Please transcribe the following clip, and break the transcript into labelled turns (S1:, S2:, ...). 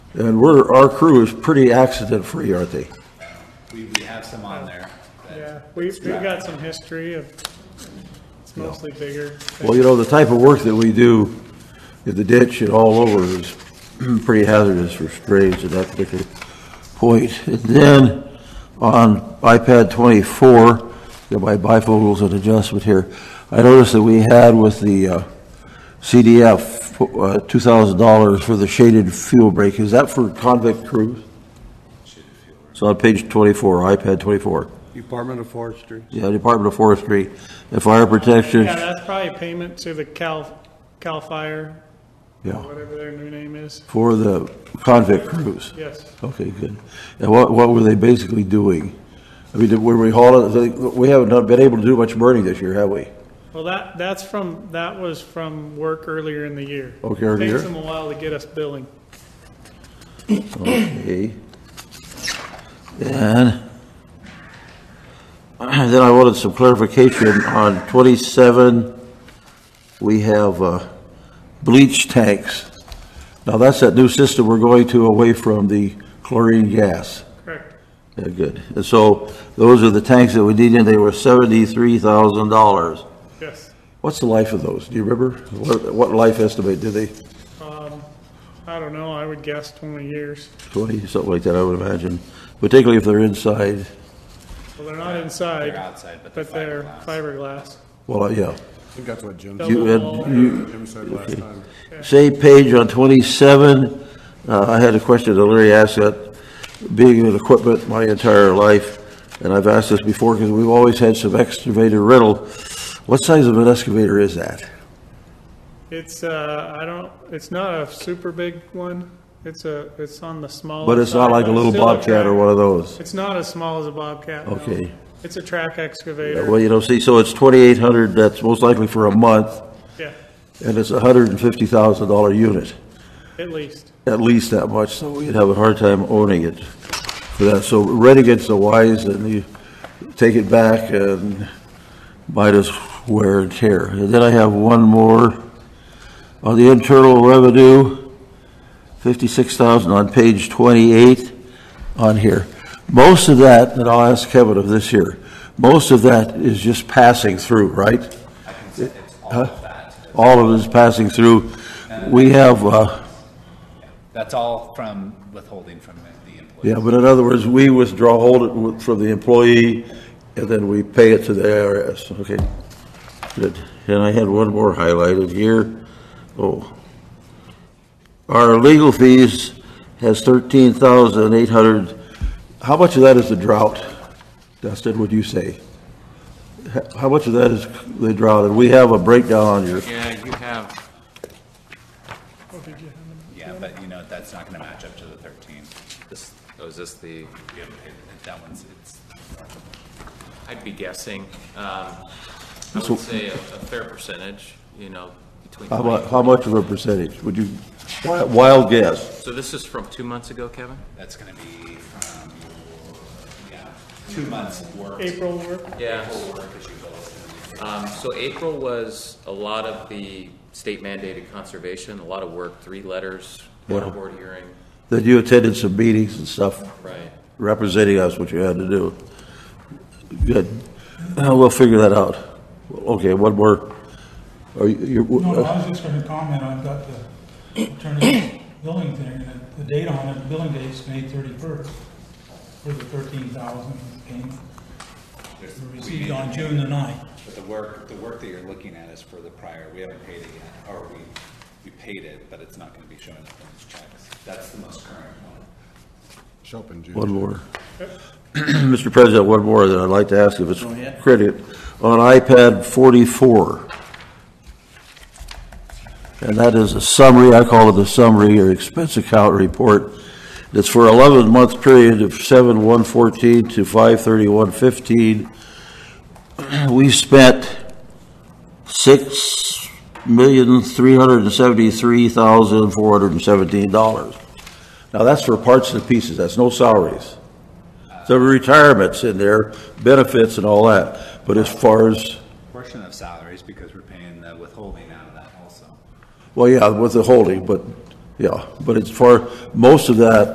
S1: And we're, our crew is pretty accident-free, aren't they?
S2: We, we have some on there. that-
S3: Yeah, we've, we've got some history of, it's mostly bigger.
S1: Well, you know, the type of work that we do in the ditch and all over is pretty hazardous for strays at that particular point. And then on iPad 24, got my bifocals and adjustment here, I noticed that we had with the uh, CDF, uh, $2,000 for the shaded fuel break. Is that for convict crews? So on page 24, iPad 24.
S4: Department of Forestry.
S1: Yeah, Department of Forestry and Fire Protection.
S3: Yeah, that's probably payment to the Cal, Cal Fire,
S1: Yeah.
S3: whatever their new name is.
S1: For the convict crews?
S3: Yes,
S1: Okay, good. And what, what were they basically doing? I mean, did- were we hauling, they- we haven't done- been able to do much burning this year, have we?
S3: well, that, that's from, that was from work earlier in the year.
S1: Okay, earlier.
S3: Takes them a while to get us billing.
S1: Okay. And then I wanted some clarification on 27, we have uh, bleach tanks. Now, that's that new system we're going to away from the chlorine gas.
S3: Correct.
S1: Yeah, good. And so those are the tanks that we need, and they were seventy-three thousand dollars.
S3: Yes.
S1: What's the life of those? Do you remember? What, what life estimate did they?
S3: I don't know, I would guess 20 years.
S1: Twenty, something like that, I would imagine, particularly if they're inside.
S3: Well, they're not inside.
S2: They're outside, but they're
S3: But they're
S2: fiberglass.
S3: fiberglass.
S1: Well, yeah.
S4: I think that's what Jim,
S1: You had,
S3: Double wall.
S1: you,
S4: Jim said last time.
S1: same page on twenty-seven. Uh, I had a question that Larry asked that, being in equipment my entire life, and I've asked this before because we've always had some excavator rental. What size of an excavator is that?
S3: It's, uh, I don't, it's not a super big one. It's a, it's on the smaller
S1: But it's not
S3: side,
S1: like a
S3: but
S1: little
S3: still a
S1: Bobcat or
S3: track.
S1: one of those.
S3: It's not as small as a Bobcat, no.
S1: Okay.
S3: It's a track
S1: Yeah, Well,
S3: excavator,
S1: you know, see, so it's twenty-eight hundred, that's most likely for a month,
S3: yeah,
S1: and it's a hundred and fifty thousand dollar unit,
S3: at least.
S1: at least that much, so we'd have a hard time owning it for that. So renegade's the wise, and you take it back and might as wear and tear. And then I have one more on the internal revenue, fifty-six thousand on page twenty-eight on here. Most of that, and I'll ask Kevin of this here, most of that is just passing through, right?
S2: I can say it's all of that.
S1: all of it is passing through. We have, uh,
S2: That's all from withholding from the employee.
S1: yeah, but in other words, we withdraw, hold it wi- from the employee, and then we pay it to the IRS, okay? Good. And I had one more highlighted here. Oh. Our legal fees has thirteen thousand eight hundred. How much of that is the drought? Dustin, would you say? H- How much of that is the drought? And we have a breakdown on your,
S5: Yeah, you have,
S2: Yeah, but you know, that's not gonna match up to the thirteen.
S5: this, oh, is this the,
S2: We haven't paid, it. that one's, it's,
S5: I'd be guessing, um, I would say a a fair percentage, you know, between.
S1: how
S5: 20
S1: mu, how much of a percentage? Would you, wi- wild guess?
S5: So this is from two months ago, Kevin?
S2: that's gonna be from, yeah, two months of work.
S3: April work,
S5: Yeah.
S2: Full work as you go. through.
S5: Um, so April was a lot of the state mandated conservation, a lot of work, three letters,
S1: Yeah.
S5: one board hearing,
S1: that you attended some meetings and stuff
S5: right?
S1: representing us, what you had to do. Good. Uh, We'll figure that out. Okay, one more. Are you, you're-
S6: No, no, I was just gonna comment, I've got the attorney's billing thing, and the- the date on it, the billing date's May thirty-first for the thirteen thousand payment. Received on June the ninth.
S2: But the work, the work that you're looking at is for the prior, we haven't paid it yet, or we, we paid it, but it's not gonna be showing up in these checks. That's the most current one.
S4: Shopping, Jim.
S1: one more. Mr. President, one more that I'd like to ask if it's credit. On iPad 44, and that is a summary, I call it the summary or expense account report. It's for 11-month period of 7/114 to 5/31/15. We spent $6,373,417. Now, that's for parts and pieces, that's no salaries. So retirement's in there, benefits and all that, but as far as,
S2: Portion of salaries, because we're paying the withholding out of that also.
S1: well, yeah, with the holding, but yeah, but it's for, most of that